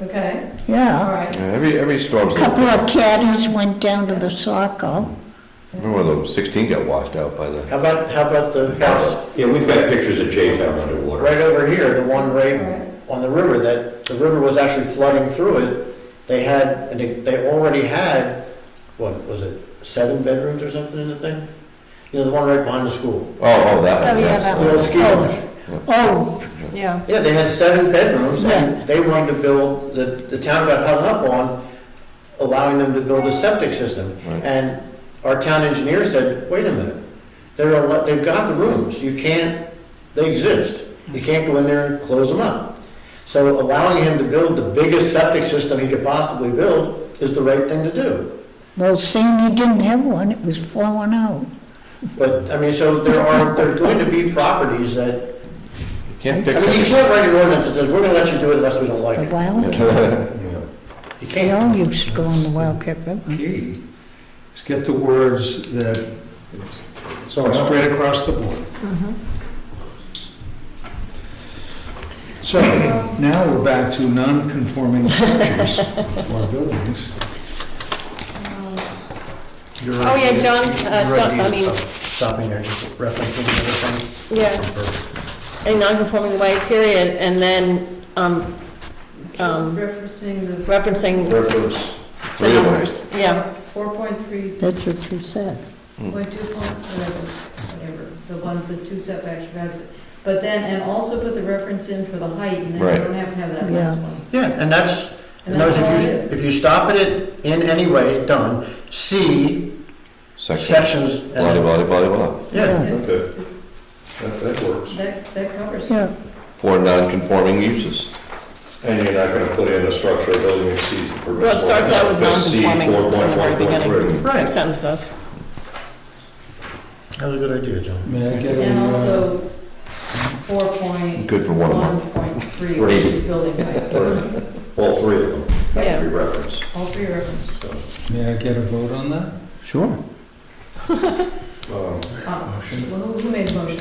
Okay, all yeah. right. Every, every storm's. A couple of caddies went down to the Saco. Remember when the sixteen got washed out by the, How about, how about the house Yeah, we've got pictures of J Town underwater. right over here, the one right on the river, that the river was actually flooding through it? They had, and they, they already had, what, was it seven bedrooms or something in the thing? You know, the one right behind the school, oh, oh, that Oh, one, yeah, yes. that the old ski lodge. Oh, Yeah, Yeah, they had seven bedrooms, Yeah. and they wanted to build, the, the town got hung up on allowing them to build a septic system. Right. And our town engineer said, wait a minute, they're, al- they've got the rooms, you can't, they exist. You can't go in there and close them up. So allowing him to build the biggest septic system he could possibly build is the right thing to do. well, seeing you didn't have one, it was flowing out. But, I mean, so there are, there are going to be properties that, You Can't fix I mean, you it. can't write an ordinance that says, we're gonna let you do it unless we don't like The it. wild, they You can't. all used to go on the Wildcat River. Key is get the words that So, no. straight across the board. Mm-hmm. So now we're back to non-conforming structures or buildings. Oh, yeah, John, uh, John, I mean, Stopping there, just referencing the yeah, other thing. a non-conforming way, period, and then, um, Just um, referencing the. referencing Reference. the Three of them. numbers, yeah. Four point three, That's what you said. point two, point whatever, whatever, the one, the two setbacks, you guys. But then, and also put the reference in for the height, and then Right. you don't have to have that Yeah. last one. Yeah, and that's, And and that was that's all it if is. you, if you stop at it in any way, done, C, Section, sections. and- blah, blah, blah, blah, blah. Yeah, Yeah, Okay. so That, that works. That, that covers it. Yeah, For non-conforming uses. And you're not gonna put in a structure or building that exceeds the permit. Well, it starts out with Because C non-conforming from the very beginning. 4.1.3. right, Sentence does. that was a good idea, John. May I get a, And uh, also, four point, Good for one of them. one point three, Right. which is building height. All three of them, Yeah, every reference. all three references. may I get a vote on that? Sure. Um, Uh, Well, who who made the motion?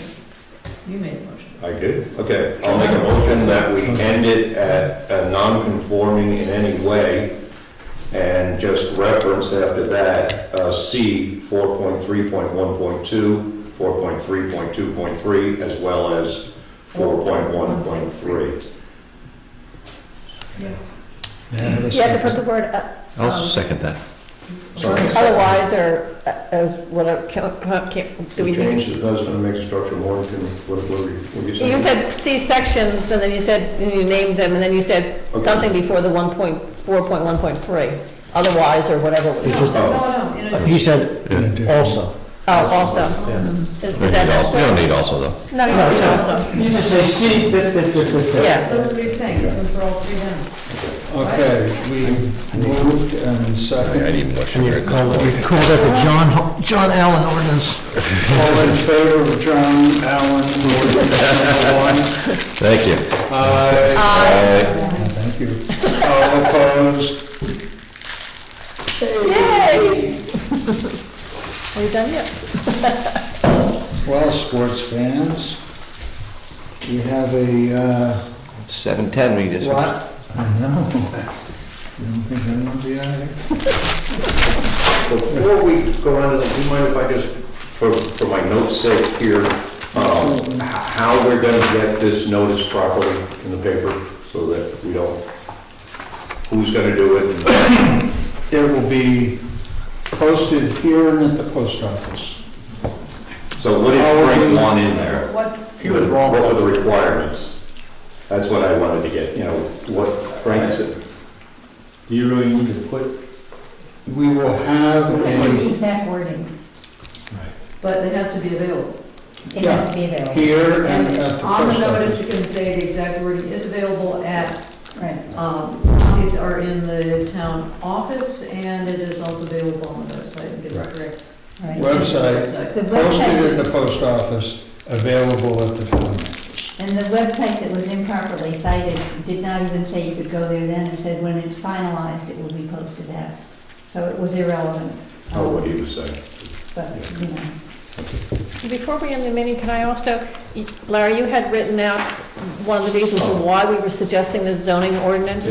You made the motion. I did, okay. I'll make a motion that we end it at a non-conforming in any way and just reference after that, uh, C 4.3.1.2, 4.3.2.3, as well as 4.1.3. May I have a You have to put second? the word uh, I'll second that. Sorry. otherwise or uh, as whatever, do we need? Change the president makes the structure more, than- what, what were you- what were you saying? You said C sections, and then you said, and you named them, and then you said Okay. something before the one point, four point one point three, otherwise, or whatever. it was. Oh. No, no, in a- He said In addition. also. Oh, also. Is You that necessary? don't need also, though. No, you don't, you don't, also, You just say C, fit, fit, fit, fit, fit. yeah. That's what he's saying, it's for all three then. uh, Okay, we moved and I seconded. need more sugar. that the John, John Allen ordinance. All in favor of John Allen, ordinance number one? Thank you. Uh, Aye. Aye. Thank you. All opposed? Yay! Are you done yet? Well, sports fans, we have a, uh, It's seven ten, we just. what? I know. You don't think anyone will be out here? Before we go on to that, do you mind if I just, for, for my notes sake here, um, h- how we're gonna get this notice properly in the paper so that we don't, who's gonna do it? and- It will be posted here and at the post office. So what did Frank want in there? What, He was wrong. What were the requirements? That's what I wanted to get, you know, what Frank said. Do you really need to put We will have We a need that wording. but it has to be available. It has to be available. here and And at the post on the notice, office. it can say the exact wording is available at, Right. um, copies are in the town office, and it is also available on the website, and gets Right. correct. Right. Well- Website. The Posted at website, the post office, available at the town office. and the website that was improperly cited did not even say you could go there then. It said when it's finalized, it will be posted out. So it was irrelevant. Oh, what he was saying. But, you know. Before we end the meeting, can I also, Larry, you had written out one of the reasons why we were suggesting the zoning ordinance